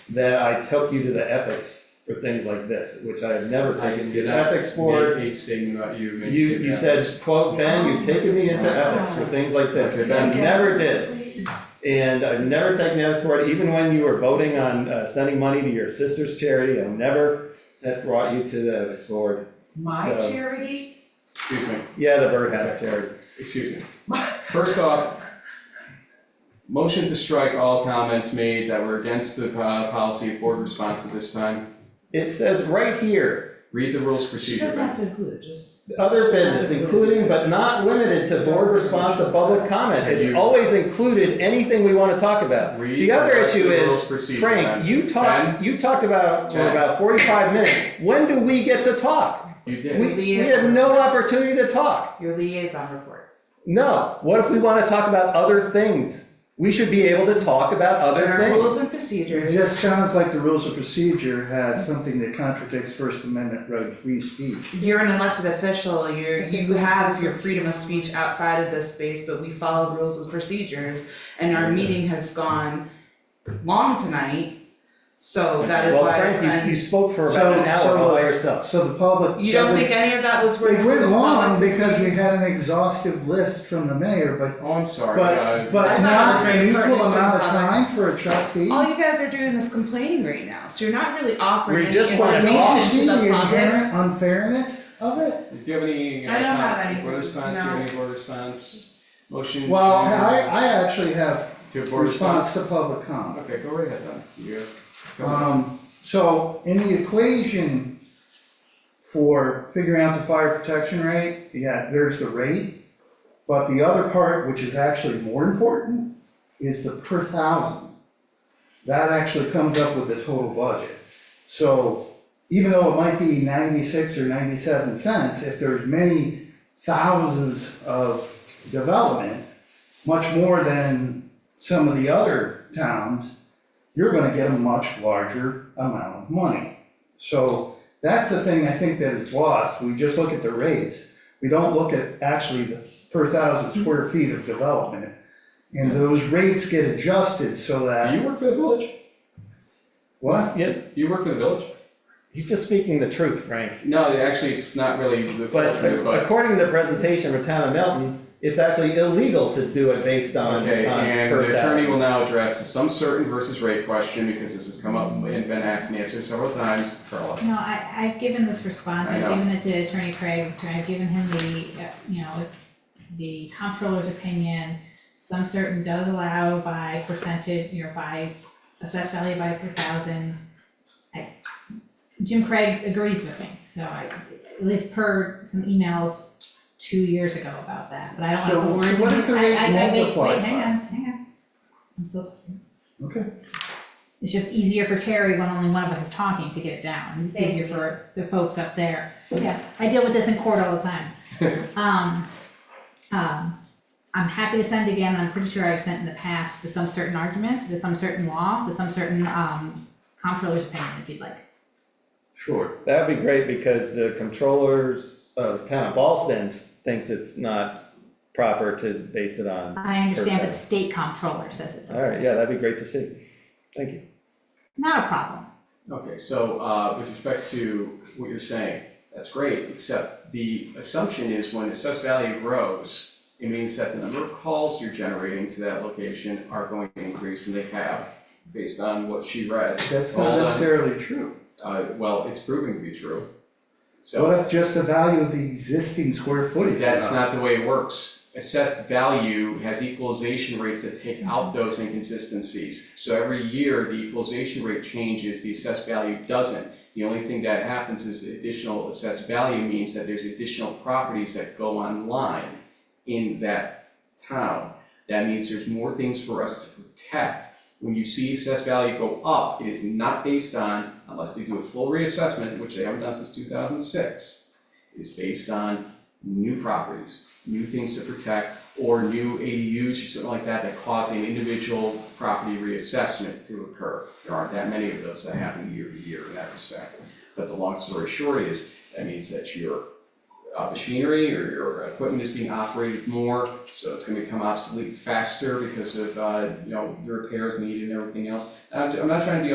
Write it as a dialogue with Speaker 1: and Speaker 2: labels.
Speaker 1: that I took you to the ethics for things like this, which I have never
Speaker 2: I
Speaker 1: taken you
Speaker 2: did
Speaker 1: to
Speaker 2: not
Speaker 1: ethics for.
Speaker 2: Make a statement about you.
Speaker 1: You,
Speaker 2: make it
Speaker 1: you
Speaker 2: happen.
Speaker 1: said, quote, Ben, you've taken me into ethics for things like this, which I never did.
Speaker 3: Please.
Speaker 1: And I've never taken ethics for it, even when you were voting on uh, sending money to your sister's charity, I never said- brought you to the ethics board.
Speaker 3: My
Speaker 1: So-
Speaker 3: charity,
Speaker 2: Excuse me,
Speaker 1: Yeah, the birdhouse charity.
Speaker 2: excuse me. First off, motion to strike all comments made that were against the uh, policy of board response at this time.
Speaker 1: It says right here,
Speaker 2: Read the rules of
Speaker 3: she
Speaker 2: procedure.
Speaker 3: doesn't have
Speaker 2: Ben.
Speaker 3: to include it, just.
Speaker 1: Other business, including but not limited to board response to public comment, it's always included anything we want to talk about.
Speaker 2: Read
Speaker 1: The other
Speaker 2: rest of
Speaker 1: issue
Speaker 2: the
Speaker 1: is,
Speaker 2: rules of procedure,
Speaker 1: Frank,
Speaker 2: Ben.
Speaker 1: you talked, you talked about, for
Speaker 2: Ben.
Speaker 1: about forty-five minutes, when do we get to talk?
Speaker 2: You
Speaker 1: We,
Speaker 2: did.
Speaker 1: we have no opportunity to talk,
Speaker 4: Your liaison reports.
Speaker 1: no, what if we want to talk about other things? We should be able to talk about other
Speaker 4: There are
Speaker 1: things.
Speaker 4: rules and
Speaker 5: It
Speaker 4: procedures.
Speaker 5: just sounds like the rules of procedure has something that contradicts First Amendment right of free speech.
Speaker 4: You're an elected official, you're, you have your freedom of speech outside of this space, but we follow rules and procedures. And our meeting has gone long tonight, so that is
Speaker 1: Well,
Speaker 4: why it's
Speaker 1: Frank, you, you
Speaker 4: un-
Speaker 1: spoke for about an
Speaker 5: So-
Speaker 1: hour all by
Speaker 5: so-
Speaker 1: yourself.
Speaker 5: So the public
Speaker 4: You don't
Speaker 5: doesn't-
Speaker 4: think any of that was worth?
Speaker 5: It went
Speaker 4: the
Speaker 5: long
Speaker 4: public to
Speaker 5: because
Speaker 4: see?
Speaker 5: we had an exhaustive list from the mayor, but,
Speaker 2: Oh, I'm sorry. uh,
Speaker 5: but,
Speaker 4: I
Speaker 5: but
Speaker 4: thought
Speaker 5: not
Speaker 4: it was
Speaker 5: an
Speaker 4: very
Speaker 5: equal
Speaker 4: pertinent to
Speaker 5: amount of
Speaker 4: the public.
Speaker 5: time for a trustee.
Speaker 4: All you guys are doing is complaining right now, so you're not really offering
Speaker 1: We
Speaker 4: any
Speaker 1: just wanna
Speaker 4: information to the public.
Speaker 1: talk.
Speaker 5: Do you see the inherent unfairness of it?
Speaker 2: Do you have any? uh,
Speaker 4: I don't have any.
Speaker 2: Board response, do you
Speaker 4: No.
Speaker 2: have any board response? Motion?
Speaker 5: Well,
Speaker 2: to-
Speaker 5: I, I actually have
Speaker 2: To board
Speaker 5: response
Speaker 2: response?
Speaker 5: to public comment.
Speaker 2: Okay, go right ahead then. You have- go ahead.
Speaker 5: Um, so in the equation for figuring out the fire protection rate, yeah, there's the rate. But the other part, which is actually more important, is the per thousand. That actually comes up with the total budget. So even though it might be ninety-six or ninety-seven cents, if there's many thousands of development, much more than some of the other towns, you're gonna get a much larger amount of money. So that's the thing I think that is lost, we just look at the rates, we don't look at actually the per
Speaker 2: Hmm.
Speaker 5: thousand square feet of development. And those rates get adjusted so
Speaker 2: Do
Speaker 5: that,
Speaker 2: you work for the village?
Speaker 5: what?
Speaker 2: Do you work for the village?
Speaker 1: He's just speaking the truth, Frank.
Speaker 2: No, actually, it's not really the
Speaker 1: But
Speaker 2: village, but,
Speaker 1: according to the presentation from Town of Milton, it's actually illegal to do it based on, on
Speaker 2: okay, and
Speaker 1: per
Speaker 2: the attorney
Speaker 1: thousand.
Speaker 2: will now address the sum certain versus rate question, because this has come up and been asked and answered several times, Carla.
Speaker 6: No, I, I've given this response,
Speaker 2: I
Speaker 6: I've
Speaker 2: know.
Speaker 6: given it to Attorney Craig, I've given him the, uh, you know, the comptroller's opinion. Some certain does allow by percentage, you know, by assessed value by per thousands. I- Jim Craig agrees with me, so I, at least per some emails two years ago about that, but I don't
Speaker 5: So-
Speaker 6: want to worry.
Speaker 5: so what is the rate multiplied
Speaker 6: Wait, hang
Speaker 5: by?
Speaker 6: on, hang on. I'm still talking.
Speaker 5: Okay.
Speaker 6: It's just easier for Terry when only one of us is talking to get it down. It's easier for the folks up there. Yeah, I deal with this in court all the time. Um, um, I'm happy to send again, I'm pretty sure I've sent in the past, the some certain argument, the some certain law, the some certain, um, comptroller's opinion, if you'd like.
Speaker 5: Sure.
Speaker 1: That'd be great because the controllers of Town of Ballston thinks it's not proper to base it on.
Speaker 6: I understand, but the state comptroller says it's
Speaker 1: All right, yeah, that'd be great to see. Thank you.
Speaker 6: not a problem.
Speaker 2: Okay, so, uh, with respect to what you're saying, that's great, except the assumption is when assessed value grows, it means that the number of calls you're generating to that location are going to increase, and they have, based on what she read.
Speaker 5: That's
Speaker 2: Well
Speaker 5: not
Speaker 2: done.
Speaker 5: necessarily true.
Speaker 2: Uh, well, it's proving to be true.
Speaker 5: What
Speaker 2: So
Speaker 5: if just the value of the existing square footage?
Speaker 2: that's not the way it works. Assessed value has equalization rates that take out those inconsistencies. So every year, the equalization rate changes, the assessed value doesn't. The only thing that happens is the additional assessed value means that there's additional properties that go online in that town. That means there's more things for us to protect. When you see assessed value go up, it is not based on, unless they do a full reassessment, which they haven't done since two thousand six, it is based on new properties, new things to protect, or new ADUs or something like that that cause an individual property reassessment to occur. There aren't that many of those that happen year to year in that respect. But the long story short is, that means that your uh, machinery or your equipment is being operated more, so it's gonna become obsolete faster because of, uh, you know, the repairs needed and everything else. I'm, I'm not trying to be